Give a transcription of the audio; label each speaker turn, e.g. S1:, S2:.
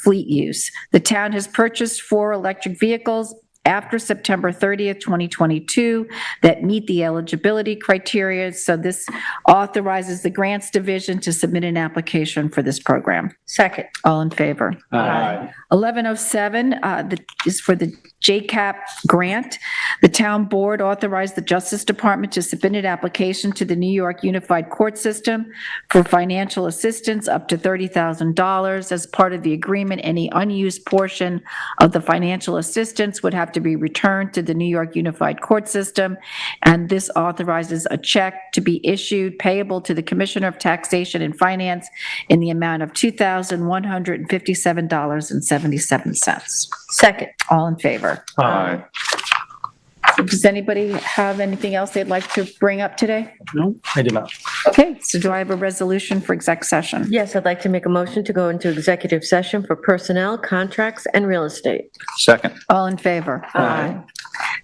S1: fleet use. The town has purchased four electric vehicles after September 30th, 2022, that meet the eligibility criteria. So this authorizes the Grants Division to submit an application for this program.
S2: Second.
S1: All in favor?
S3: Aye.
S1: 1107 uh, the- is for the JCAP grant. The town board authorized the Justice Department to submit an application to the New York Unified Court System for financial assistance up to $30,000. As part of the agreement, any unused portion of the financial assistance would have to be returned to the New York Unified Court System, and this authorizes a check to be issued payable to the Commissioner of Taxation and Finance in the amount of $2,157.77.
S2: Second.
S1: All in favor?
S3: Aye.
S1: Does anybody have anything else they'd like to bring up today?
S3: No, I do not.
S1: Okay, so do I have a resolution for exec session?
S2: Yes, I'd like to make a motion to go into executive session for personnel, contracts, and real estate.
S3: Second.
S1: All in favor?
S3: Aye.